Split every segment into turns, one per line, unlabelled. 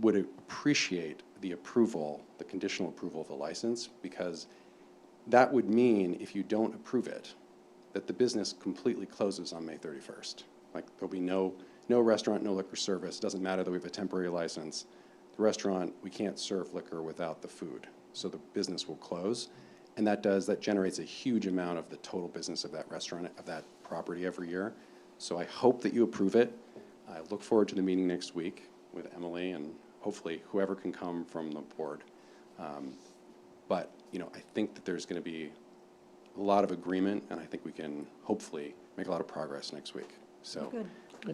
would appreciate the approval, the conditional approval of the license, because that would mean if you don't approve it, that the business completely closes on May 31st. Like, there'll be no, no restaurant, no liquor service, doesn't matter that we have a temporary license. The restaurant, we can't serve liquor without the food, so the business will close. And that does, that generates a huge amount of the total business of that restaurant, of that property every year. So I hope that you approve it. I look forward to the meeting next week with Emily and hopefully whoever can come from the board. Um, But, you know, I think that there's going to be a lot of agreement, and I think we can hopefully make a lot of progress next week. So
Good.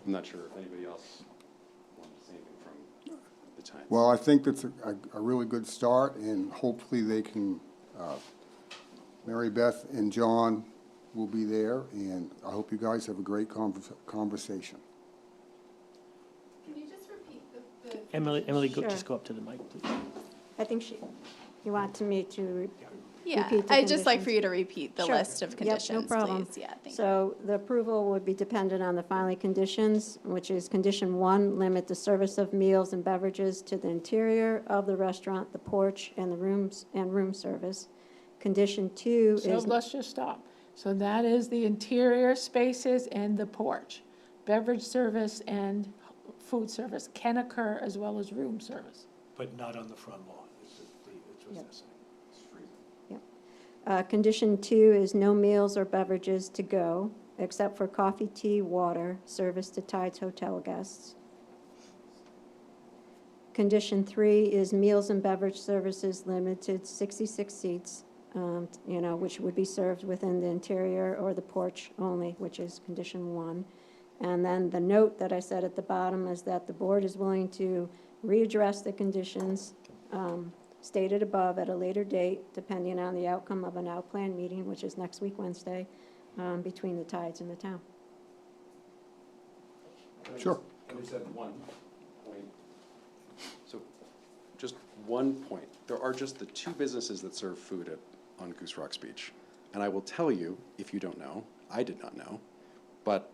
I'm not sure if anybody else wanted to say anything from the time.
Well, I think that's a, a- a really good start, and hopefully they can, uh, Mary Beth and John will be there, and I hope you guys have a great convers- conversation.
Can you just repeat the, the?
Emily, Emily, go,
Sure.
just go up to the mic, please.
I think she, you want me to re-
Yeah,
repeat the
I'd just like for
conditions.
you to repeat the
Sure.
list of
Yep,
conditions,
no problem.
please. Yeah, thank you.
So the approval would be dependent on the filing conditions, which is condition one, limit the service of meals and beverages to the interior of the restaurant, the porch, and the rooms, and room service. Condition two
So
is,
let's just stop. So that is the interior spaces and the porch. Beverage service and food service can occur as well as room service.
But not on the front lawn, is the, it's what they're saying.
uh, condition two is no meals or beverages to go, except for coffee, tea, water, service to Tides Hotel guests. Condition three is meals and beverage services limited 66 seats, um, you know, which would be served within the interior or the porch only, which is condition one. And then the note that I said at the bottom is that the board is willing to readdress the conditions um, stated above at a later date, depending on the outcome of an outplan meeting, which is next week, Wednesday, um, between the tides and the town.
Sure.
I just have one point. So, just one point. There are just the two businesses that serve food at, on Goose Rocks Beach. And I will tell you, if you don't know, I did not know, but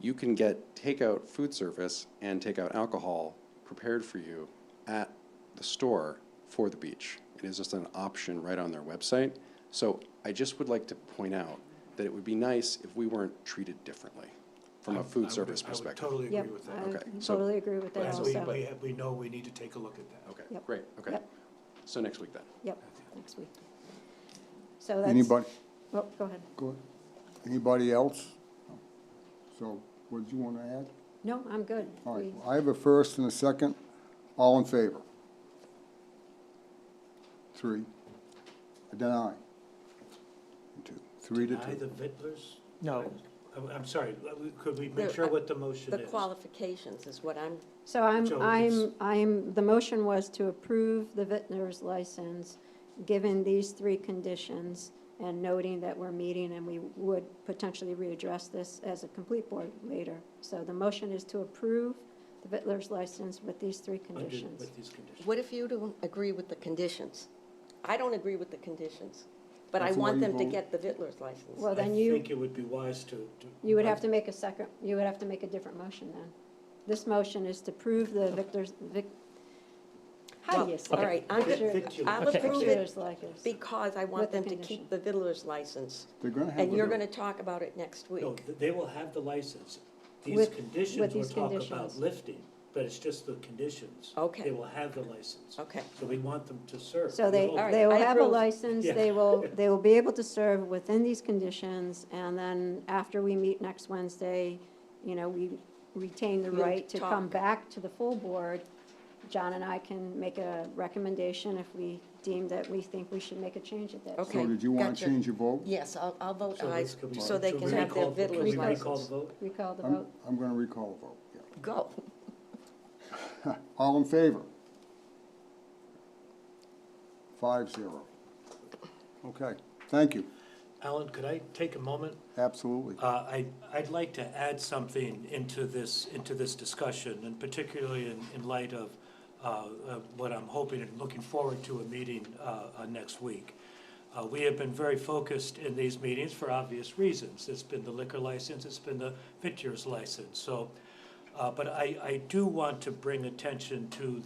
you can get takeout food service and takeout alcohol prepared for you at the store for the beach. It is just an option right on their website. So I just would like to point out that it would be nice if we weren't treated differently from a
I
food
would-
service perspective.
I would totally
Yep,
agree with
I
that.
Okay, so-
totally agree with that
But
also.
we, we, have- we know we need to take a look at that.
Okay,
Yep.
great, okay.
Yep.
So next week then?
Yep, next week. So that's.
Anybody,
Oh, go ahead.
go ahead. Anybody else? So, what did you want to add?
No, I'm good.
All right,
We-
I have a first and a second. All in favor? Three. Deny. Two, three to
Deny
two.
the vittlers?
No.
I'm, I'm sorry, could we make
The-
uh,
sure what the motion
The
is?
qualifications is what I'm,
So I'm,
So
I'm,
it's-
I'm, the motion was to approve the vintner's license, given these three conditions, and noting that we're meeting and we would potentially readdress this as a complete board later. So the motion is to approve the vintner's license with these three
Under-
conditions.
With these conditions.
what if you don't agree with the conditions? I don't agree with the conditions, but I
That's the way
want
you
them to
vote.
get the Vittler's license.
Well, then
I
you,
think it would be wise to, to.
you would have to make a second, you would have to make a different motion then. This motion is to prove the victor's, vic, how
Well,
do you say?
All right, I'm,
Sure.
gonna-
Victular.
I'll approve it
Victor's license.
because I
With
want
the
them to
condition.
keep the Vittler's license.
They're gonna have.
And
a-
you're gonna talk about it next
No,
week.
th- they will have the license. These
With-
conditions
with
we're
these
talking about
conditions.
lifting, but it's just the conditions.
Okay.
They will have the license.
Okay.
So we want them to serve.
So they,
We'll-
All right,
they will
I
have a
approve.
license,
Yeah.
they will, they will be able to serve within these conditions, and then after we meet next Wednesday, you know, we retain the
You'll
right to come
talk.
back to the full board. John and I can make a recommendation if we deem that we think we should make a change at that time.
Okay.
So did you want to
gotcha.
change your vote?
Yes, I'll, I'll vote
So
aye,
this could be-
so they
should
can
we
have their
recall- can
Vittler's
we recall the
license.
vote?
We call the
I'm,
vote.
I'm gonna recall a vote, yeah.
Go.
All in favor? Five zero. Okay, thank you,
Alan, could I take a moment?
absolutely.
Uh, I, I'd like to add something into this, into this discussion, and particularly in, in light of uh, uh, what I'm hoping and looking forward to a meeting uh, uh, next week. Uh, We have been very focused in these meetings for obvious reasons. It's been the liquor license, it's been the vitreous license, so. uh, But I, I do want to bring attention to